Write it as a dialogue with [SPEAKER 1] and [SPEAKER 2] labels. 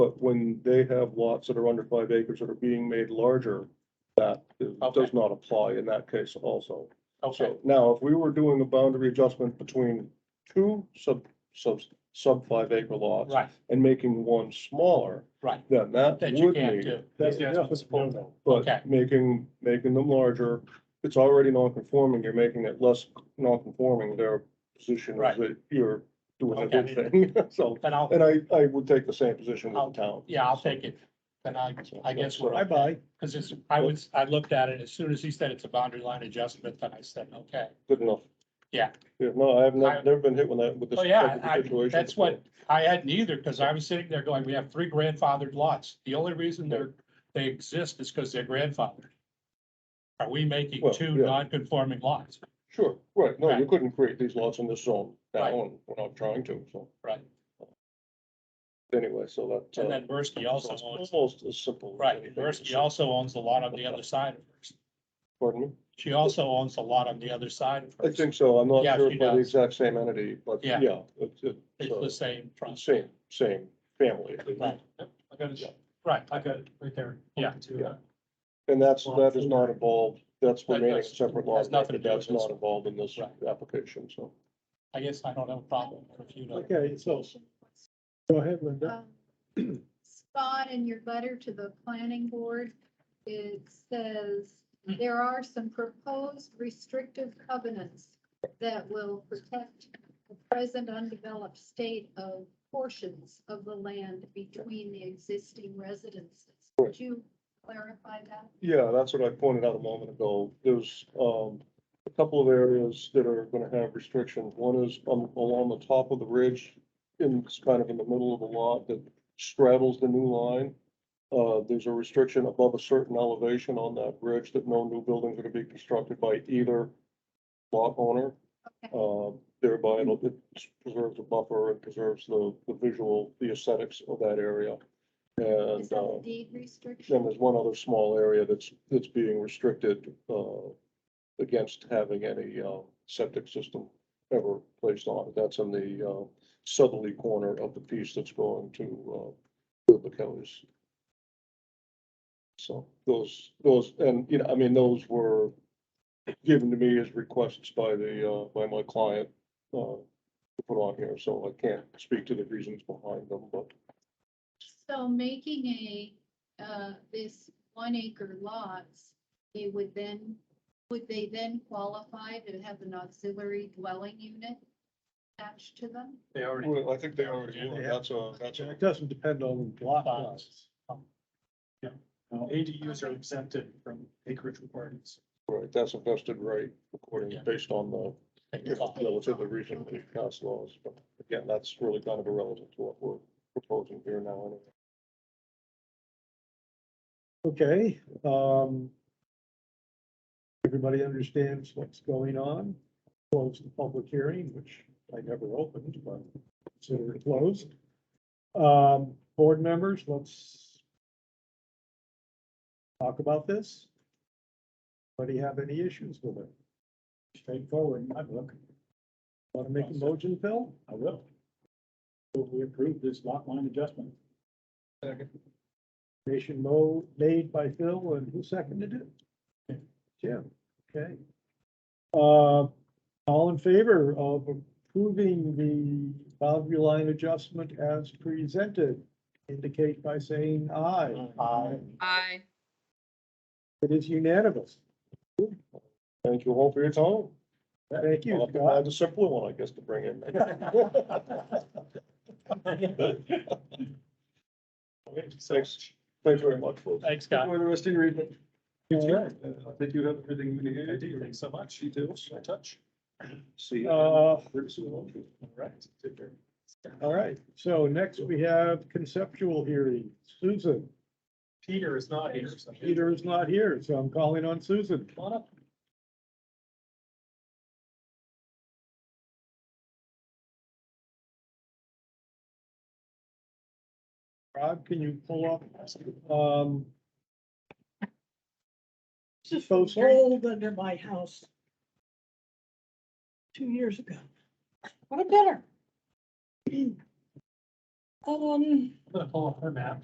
[SPEAKER 1] But when they have lots that are under five acres that are being made larger, that is-
[SPEAKER 2] Okay.
[SPEAKER 1] does not apply in that case also.
[SPEAKER 2] Okay,
[SPEAKER 1] So now, if we were doing a boundary adjustment between two sub, sub, sub five acre lots
[SPEAKER 2] right,
[SPEAKER 1] and making one smaller,
[SPEAKER 2] right,
[SPEAKER 1] then that
[SPEAKER 2] that you
[SPEAKER 1] would
[SPEAKER 2] can't
[SPEAKER 1] need.
[SPEAKER 2] do.
[SPEAKER 1] That's-
[SPEAKER 3] Yeah,
[SPEAKER 1] yeah,
[SPEAKER 3] it's possible.
[SPEAKER 2] Okay.
[SPEAKER 1] But making, making them larger, it's already non-conforming, you're making it less non-conforming, their position
[SPEAKER 2] Right.
[SPEAKER 1] is that you're doing a
[SPEAKER 2] Okay.
[SPEAKER 1] good thing, so.
[SPEAKER 2] Then I'll,
[SPEAKER 1] And I, I would take the same position with the town.
[SPEAKER 2] yeah, I'll take it. Then I, I guess we're,
[SPEAKER 3] Bye
[SPEAKER 2] okay.
[SPEAKER 3] bye.
[SPEAKER 2] cause it's, I was, I looked at it, as soon as he said it's a boundary line adjustment, then I said, okay.
[SPEAKER 1] Good enough.
[SPEAKER 2] Yeah.
[SPEAKER 1] Yeah, no, I have
[SPEAKER 2] I-
[SPEAKER 1] not, never been hit with that, with this
[SPEAKER 2] Oh, yeah,
[SPEAKER 1] type
[SPEAKER 2] I,
[SPEAKER 1] of situation.
[SPEAKER 2] that's what, I had neither, cause I was sitting there going, we have three grandfathered lots. The only reason they're, they exist is cause they're grandfathered. Are we making
[SPEAKER 1] Well,
[SPEAKER 2] two
[SPEAKER 1] yeah.
[SPEAKER 2] non-conforming lots?
[SPEAKER 1] Sure, right, no, you
[SPEAKER 2] Right.
[SPEAKER 1] couldn't create these lots in this zone
[SPEAKER 2] Right.
[SPEAKER 1] now, and we're not trying to, so.
[SPEAKER 2] Right.
[SPEAKER 1] Anyway, so that. uh,
[SPEAKER 2] And then Bursky also
[SPEAKER 1] it's
[SPEAKER 2] owns,
[SPEAKER 1] Almost as simple. as
[SPEAKER 2] right,
[SPEAKER 1] anything.
[SPEAKER 2] Bursky also owns a lot on the other side of hers.
[SPEAKER 1] Pardon me?
[SPEAKER 2] She also owns a lot on the other side of
[SPEAKER 1] I
[SPEAKER 2] hers.
[SPEAKER 1] think so, I'm not
[SPEAKER 2] Yeah,
[SPEAKER 1] sure
[SPEAKER 2] she
[SPEAKER 1] if by the
[SPEAKER 2] does.
[SPEAKER 1] exact same entity, but
[SPEAKER 2] Yeah.
[SPEAKER 1] yeah, it's,
[SPEAKER 2] It's the
[SPEAKER 1] it's,
[SPEAKER 2] same
[SPEAKER 1] uh,
[SPEAKER 2] trust.
[SPEAKER 1] same, same family.
[SPEAKER 2] Right.
[SPEAKER 3] I got
[SPEAKER 1] it.
[SPEAKER 3] Right, I got it right there.
[SPEAKER 2] Yeah.
[SPEAKER 1] Yeah. And that's, that is not involved, that's
[SPEAKER 2] That
[SPEAKER 1] remaining
[SPEAKER 2] does-
[SPEAKER 1] separate
[SPEAKER 2] has
[SPEAKER 1] law,
[SPEAKER 2] nothing to
[SPEAKER 1] but
[SPEAKER 2] do
[SPEAKER 1] that's
[SPEAKER 2] with this.
[SPEAKER 1] not involved in this
[SPEAKER 2] Right.
[SPEAKER 1] application, so.
[SPEAKER 2] I guess I don't have a problem if you know.
[SPEAKER 3] Okay, so go ahead, Linda.
[SPEAKER 4] Um, Scott, in your letter to the planning board, it says
[SPEAKER 2] Hmm.
[SPEAKER 4] there are some proposed restrictive covenants that will protect the present undeveloped state of portions of the land between the existing residences. Would you clarify that?
[SPEAKER 1] Yeah, that's what I pointed out a moment ago. There's, um, a couple of areas that are gonna have restrictions. One is um, along the top of the ridge, in, it's kind of in the middle of the lot that straddles the new line. Uh, there's a restriction above a certain elevation on that ridge that no new buildings are to be constructed by either lot owner. Uh, thereby it'll- it preserves a buffer and preserves the, the visual, the aesthetics of that area.
[SPEAKER 4] Is
[SPEAKER 1] And,
[SPEAKER 4] that
[SPEAKER 1] uh,
[SPEAKER 4] a deed
[SPEAKER 1] then
[SPEAKER 4] restriction?
[SPEAKER 1] there's one other small area that's, that's being restricted, uh, against having any, uh, septic system ever placed on it. That's in the, uh, southerly corner of the piece that's going to, uh, the counties. So those, those, and, you know, I mean, those were given to me as requests by the, uh, by my client, uh, to put on here, so I can't speak to the reasons behind them, but
[SPEAKER 4] So making a, uh, this one acre lots, they would then, would they then qualify to have an auxiliary dwelling unit attached to them?
[SPEAKER 3] They
[SPEAKER 1] Well, I think they already do, and that's a, that's a,
[SPEAKER 3] It doesn't depend on lot
[SPEAKER 2] Lots.
[SPEAKER 3] size. um, Yeah, Now, ADUs are exempted from acreage requirements.
[SPEAKER 1] right, that's a vested right according,
[SPEAKER 2] Yeah.
[SPEAKER 1] based on the
[SPEAKER 2] Take
[SPEAKER 1] you
[SPEAKER 2] it
[SPEAKER 1] know,
[SPEAKER 2] off.
[SPEAKER 1] relatively recently passed laws. But again, that's really kind of irrelevant to what we're proposing here now. anyway.
[SPEAKER 3] Okay, um. Everybody understands what's going on. Close the public hearing, which I never opened, but consider it closed. Um, board members, let's. Talk about this. Anybody have any issues with it? Straightforward, in my book. Want to make a motion, Phil? I will. We approve this lot line adjustment. Motion mo- made by Phil, and who seconded it? Jim, okay. Uh, all in favor of approving the boundary line adjustment as presented, indicate by saying aye.
[SPEAKER 2] Aye.
[SPEAKER 5] Aye.
[SPEAKER 3] It is unanimous.
[SPEAKER 1] Thank you all for your time.
[SPEAKER 3] Thank you,
[SPEAKER 1] I'll have to
[SPEAKER 3] Scott.
[SPEAKER 1] find a simpler one, I guess, to bring in. Thanks, thanks very much, folks.
[SPEAKER 2] Thanks, Scott.
[SPEAKER 3] the rest of your evening.
[SPEAKER 1] I think you have everything you need.
[SPEAKER 3] I do, thanks
[SPEAKER 1] so much. You too. I touch. See you.
[SPEAKER 3] Uh,
[SPEAKER 1] Pretty soon.
[SPEAKER 3] Right. All right, so next we have conceptual hearing. Susan,
[SPEAKER 2] Peter is not here.
[SPEAKER 3] Peter is not here, so I'm calling on Susan. Rob, can you pull up, um,
[SPEAKER 6] This
[SPEAKER 3] So
[SPEAKER 6] was
[SPEAKER 3] sorry.
[SPEAKER 6] old under my house. Two years ago. What a better. Um.
[SPEAKER 2] I'm gonna pull up her map.